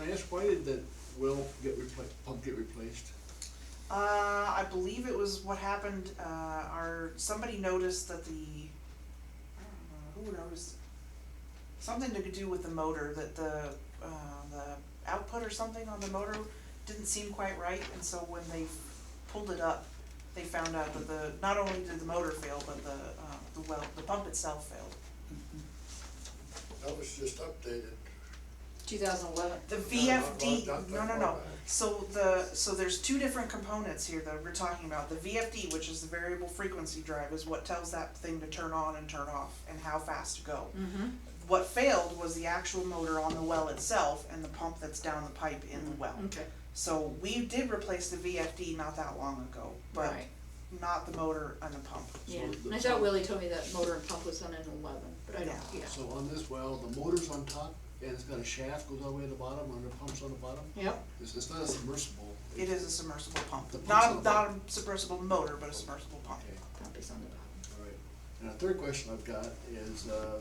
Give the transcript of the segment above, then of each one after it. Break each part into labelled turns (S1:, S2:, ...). S1: I ask, why did the well get repla pump get replaced?
S2: Uh, I believe it was what happened, uh, our, somebody noticed that the, I don't know, who noticed? Something to do with the motor, that the, uh, the output or something on the motor didn't seem quite right, and so when they pulled it up, they found out that the, not only did the motor fail, but the, uh, the well, the pump itself failed.
S3: That was just updated.
S4: Two thousand eleven.
S2: The
S3: No,
S2: VFD,
S3: not-
S2: no,
S3: not
S2: no,
S3: that
S2: no,
S3: far back.
S2: so the, so there's two different components here that we're talking about, the VFD, which is the variable frequency drive, is what tells that thing to turn on and turn off, and how fast to go.
S4: Mm-hmm.
S2: What failed was the actual motor on the well itself and the pump that's down the pipe in the well.
S4: Mm-hmm. Okay.
S2: So we did replace the VFD not that long ago, but
S4: Right.
S2: not the motor and the pump.
S4: Yeah.
S1: the-
S4: And I thought Willie told me that motor and pump was on an eleven, but I don't.
S2: Yeah.
S4: Yeah.
S1: So on this well, the motor's on top, and it's got a shaft, goes all the way to the bottom, and the pump's on the bottom?
S4: Yep.
S1: It's, it's not a submersible.
S2: It is a submersible pump,
S1: The pump's on the
S2: not, not
S1: bottom.
S2: a submersible motor, but a submersible pump.
S1: Okay,
S4: Pump is on the bottom.
S1: all right. And the third question I've got is, uh,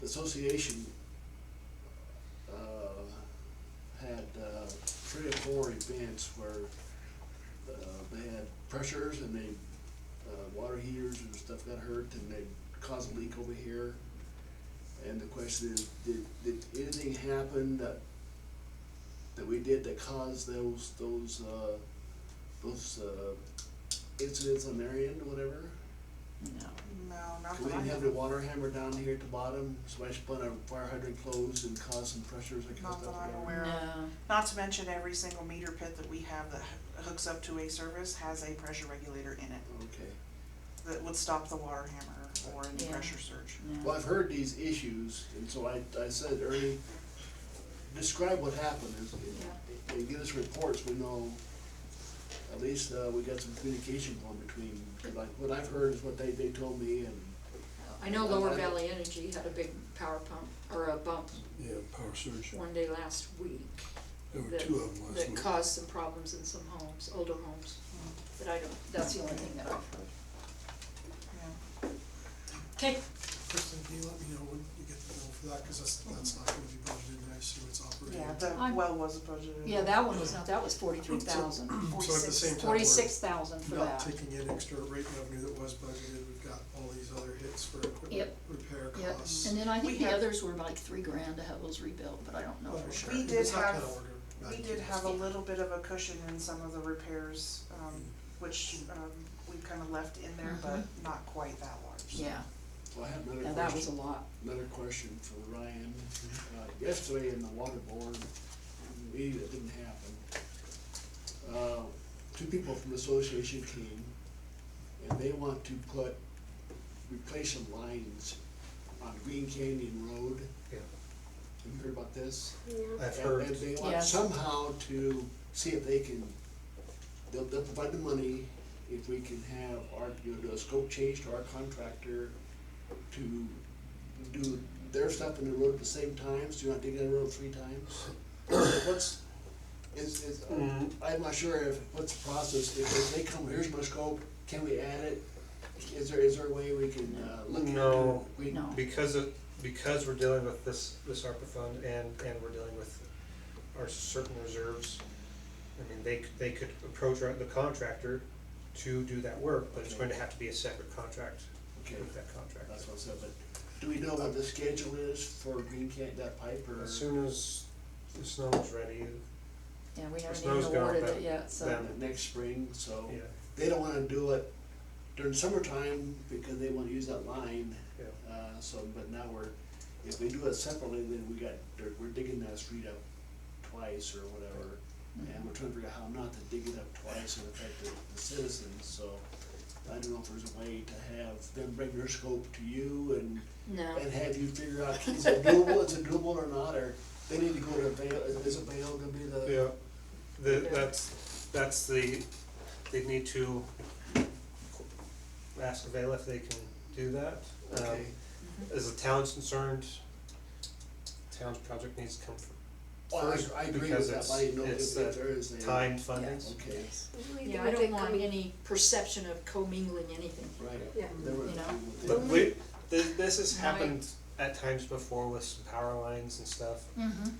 S1: the association, uh, had, uh, three or four events where, uh, they had pressures and they, uh, water heaters and stuff got hurt and they caused a leak over here. And the question is, did, did anything happen that, that we did that caused those, those, uh, those, uh, incidents on their end, whatever?
S4: No.
S2: No, not
S1: 'Cause We
S2: that I
S1: didn't have
S2: have.
S1: the water hammer down here at the bottom, somebody spun a fire hydrant closed and caused some pressures that kind of
S2: Not
S1: stuff.
S2: that I'm
S1: there.
S2: aware of.
S4: No.
S2: Not to mention every single meter pit that we have that hooks up to a service has a pressure regulator in it
S1: Okay.
S2: that would stop the water hammer or any
S4: Yeah.
S2: pressure surge.
S4: No.
S1: Well, I've heard these issues, and so I, I said, Ernie, describe what happened, and- and give us reports, we know, at least, uh, we got some communication going between, 'cause like, what I've heard is what they, they told me, and,
S4: I know Lower Valley Energy had a big power pump or a bump
S5: Yeah, power surge.
S4: one day last week
S5: There were
S4: that,
S5: two of them last
S4: that
S5: week.
S4: caused some problems in some homes, older homes. But I don't, that's the only thing that I've heard.
S2: Yeah.
S4: Okay.
S6: Kristen, can you let me know when you get the bill for that, cause that's, that's not gonna be budgeted, and I see what's operating.
S2: Yeah, the
S4: I'm-
S2: well was budgeted.
S4: Yeah, that one was not, that was forty-three thousand.
S6: So at the same time, we're
S4: Forty-six thousand for
S6: Not
S4: that.
S6: taking in extra rate revenue that was budgeted, we've got all these other hits for equipment
S4: Yep.
S6: repair
S4: Yep,
S6: costs.
S4: and then I
S2: We
S4: think the
S2: have-
S4: others were like three grand to have those rebuilt, but I don't
S6: Oh,
S4: know for sure.
S2: We did
S6: It's not
S2: have-
S6: kinda order of
S2: We
S6: magnitude.
S2: did have a little bit of a cushion in some of the repairs, um, which, um, we kind of left in there, but not quite that large.
S4: Mm-hmm. Yeah,
S1: so I have another
S4: now
S1: question.
S4: that was a lot.
S1: Another question for Ryan. Uh, Yesterday in the water board, meeting that didn't happen, uh, two people from the association came, and they want to put, replace some lines on Green Canyon Road.
S7: Yeah.
S1: Have you heard about this?
S7: I've
S1: And-
S7: heard,
S1: And they want
S4: Yes.
S1: somehow to see if they can, they'll, they'll provide the money if we can have our, you know, do a scope change to our contractor to do their stuff in the road at the same time, so you're not digging the road three times. So What's, is, is,
S7: Mm.
S1: I'm not sure if, what's the process, if if they come, here's my scope, can we add it? Is there, is there a way we can, uh, look at?
S7: No.
S1: we-
S4: No.
S7: because of, because we're dealing with this, this ARPA fund and, and we're dealing with our certain reserves. I mean, they, c- they could approach our- the contractor to do that work, but it's going to have to be a separate contract
S1: Okay,
S7: with that contractor.
S1: that's what I said, but do we know what the schedule is for Green Canyon, that pipe, or?
S7: As soon as the snow is ready,
S4: Yeah, we haven't
S7: snow's
S4: even
S7: gone,
S4: awarded
S7: but
S4: it yet, so,
S7: then-
S1: next spring, so
S7: yeah,
S1: they don't wanna do it during summertime because they wanna use that line.
S7: yeah.
S1: Uh, so, but now we're, if we do it separately, then we got, they're- we're digging that street up twice or whatever. And we're trying to figure out how not to dig it up twice and affect the, the citizens, so I don't know if there's a way to have them bring their scope to you and,
S4: no,
S1: and have you figure out, is it doable, is it doable or not, or they need to go to Vail, is, is it Vail gonna be the?
S7: Yeah, the,
S4: Yeah.
S7: that's, that's the, they need to ask Avail if they can do that. Um,
S1: Okay,
S7: As the town's concerned, town's project needs to come from
S1: well,
S7: first,
S1: I, I agree
S7: because
S1: with that,
S7: it's-
S1: but I didn't know
S7: it's
S1: if,
S7: the
S1: if there is a.
S7: timed funding.
S1: Okay,
S4: yeah, I don't want any perception of commingling anything.
S1: right.
S4: Yeah.
S1: There were-
S4: You know?
S7: But
S1: there-
S7: we, this, this has
S4: Right.
S7: happened at times before with some power lines and stuff,
S4: Mm-hmm.